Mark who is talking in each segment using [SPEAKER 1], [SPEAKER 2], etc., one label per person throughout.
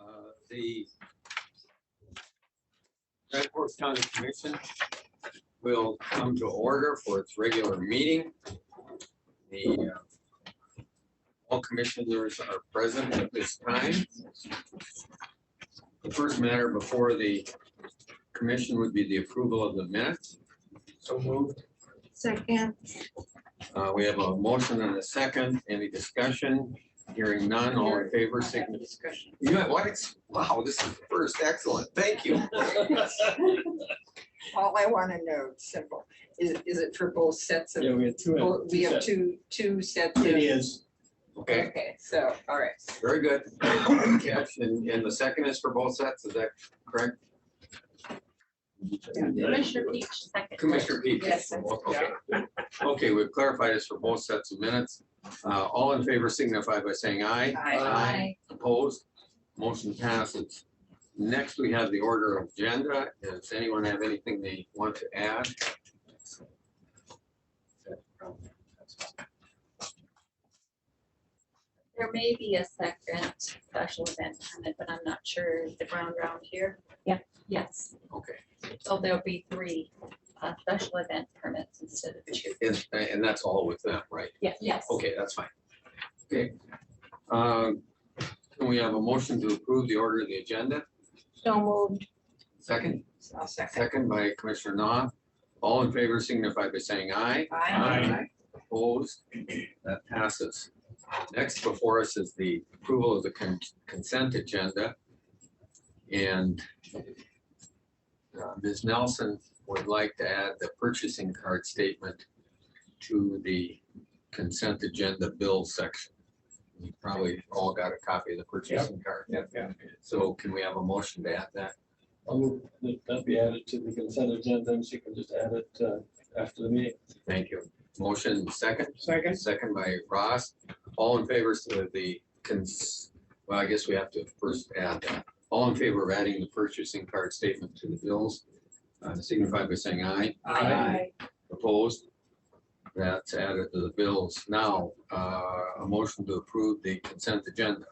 [SPEAKER 1] uh, the Red Fork County Commission will come to order for its regular meeting. The uh, all commissioners are present at this time. The first matter before the commission would be the approval of the minutes. So moved.
[SPEAKER 2] Second,
[SPEAKER 1] Uh, we have a motion and a second. Any discussion? Hearing none, all in favor, signify.
[SPEAKER 3] Discussion.
[SPEAKER 1] You know what? It's- Wow, this is the first. Excellent. Thank you.
[SPEAKER 3] All I want to know, it's simple, is, is it for both sets of,
[SPEAKER 4] Yeah, we had two.
[SPEAKER 3] both- we have
[SPEAKER 4] sets.
[SPEAKER 3] two, two sets of?
[SPEAKER 4] It is.
[SPEAKER 1] Okay,
[SPEAKER 3] Okay, so, all right.
[SPEAKER 1] very good. Good catch. And, and the second is for both sets. Is that correct?
[SPEAKER 5] Commissioner Peach, second.
[SPEAKER 1] Commissioner Peach.
[SPEAKER 3] Yes.
[SPEAKER 1] Okay. Okay, we've clarified this for both sets of minutes. Uh, all in favor signify by saying aye.
[SPEAKER 3] Aye.
[SPEAKER 1] Aye. Opposed? Motion passes. Next, we have the order of agenda. Does anyone have anything they want to add?
[SPEAKER 5] There may be a second special event permit, but I'm not sure Is the ground round here. Yeah. Yes,
[SPEAKER 1] Okay,
[SPEAKER 5] so there'll be three uh, special event permits instead of two.
[SPEAKER 1] and, and that's all with them, right?
[SPEAKER 5] Yes, yes.
[SPEAKER 1] Okay, that's fine. Okay. Um, Can we have a motion to approve the order of the agenda?
[SPEAKER 2] so moved.
[SPEAKER 1] Second,
[SPEAKER 3] I'll second.
[SPEAKER 1] second by Commissioner Knopf. All in favor signify by saying aye. Aye. Opposed? That uh, passes. Next before us is the approval of the con- consent agenda. And uh, Ms. Nelson would like to add the purchasing card statement to the consent agenda bill section. You probably all got a copy of the purchasing card.
[SPEAKER 4] Yeah.
[SPEAKER 1] So can we have a motion to add that?
[SPEAKER 4] I'll move that that be added to the consent agenda, and she can just add it uh, after the meeting.
[SPEAKER 1] Thank you. Motion second?
[SPEAKER 3] Second.
[SPEAKER 1] Second by Ross. All in favor of the cons, well, I guess we have to first add that. All in favor of adding the purchasing card statement to the bills, uh, signify by saying aye.
[SPEAKER 3] Aye.
[SPEAKER 1] Opposed? That's added to the bills. Now, uh, a motion to approve the consent agenda.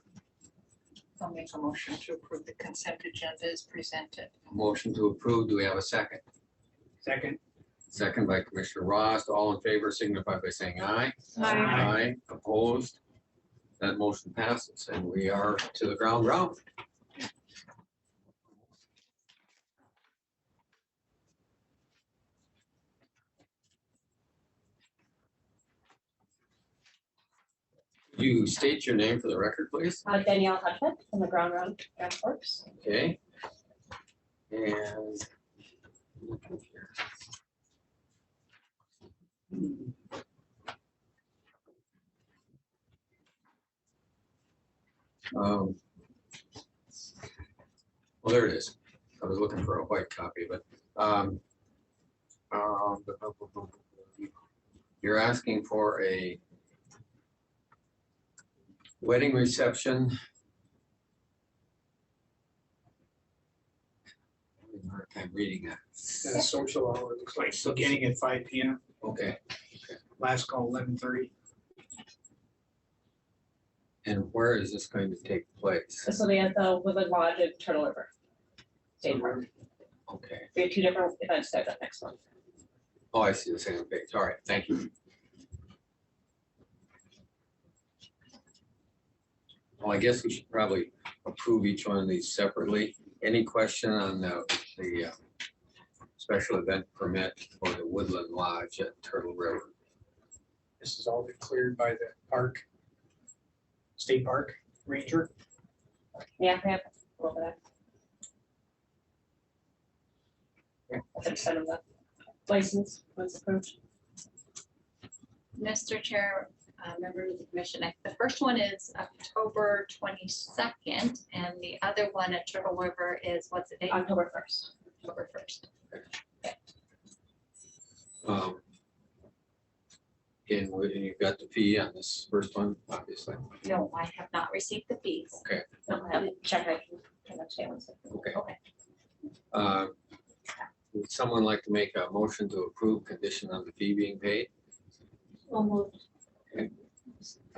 [SPEAKER 3] I'll make a motion to approve the consent agenda as presented.
[SPEAKER 1] Motion to approve. Do we have a second?
[SPEAKER 6] Second.
[SPEAKER 1] Second by Commissioner Ross. All in favor signify by saying aye.
[SPEAKER 2] Aye.
[SPEAKER 1] Aye. Opposed? That motion passes and we are to the ground round. Could You state your name for the record, please.
[SPEAKER 7] Uh, Danielle Hudson from the Ground Round Ground Works.
[SPEAKER 1] Okay. And. Um, Well, there it is. I was looking for a white copy, but. um, um, You're asking for a wedding reception having a hard time reading that.
[SPEAKER 6] Got a uh, social hour, it looks like, beginning at five P M,
[SPEAKER 1] Okay,
[SPEAKER 6] last call eleven thirty.
[SPEAKER 1] and where is this going to take place?
[SPEAKER 7] This will be at the Woodland Lodge at Turtle River. State Park.
[SPEAKER 1] Okay,
[SPEAKER 7] We have two different events set up next month.
[SPEAKER 1] oh, I see the same page. All right, thank you. Well, I guess we should probably approve each one of these separately. Any question on the, the uh, special event permit for the Woodland Lodge at Turtle River?
[SPEAKER 6] This has all been cleared by the park, state park ranger.
[SPEAKER 7] Yeah, we have a little bit of. That's kind of the license was approved.
[SPEAKER 5] Mr. Chair, uh, members of the commission, I- the first one is October twenty-second, and the other one at Turtle River is, what's the date?
[SPEAKER 7] October first.
[SPEAKER 5] October first.
[SPEAKER 1] Um, And we- and you've got the fee on this first one, obviously.
[SPEAKER 5] No, I have not received the fees.
[SPEAKER 1] Okay.
[SPEAKER 7] I'll have to check. I can turn that down one second.
[SPEAKER 1] Okay.
[SPEAKER 5] Okay.
[SPEAKER 1] Uh, Would someone like to make a motion to approve condition on the fee being paid?
[SPEAKER 7] We'll move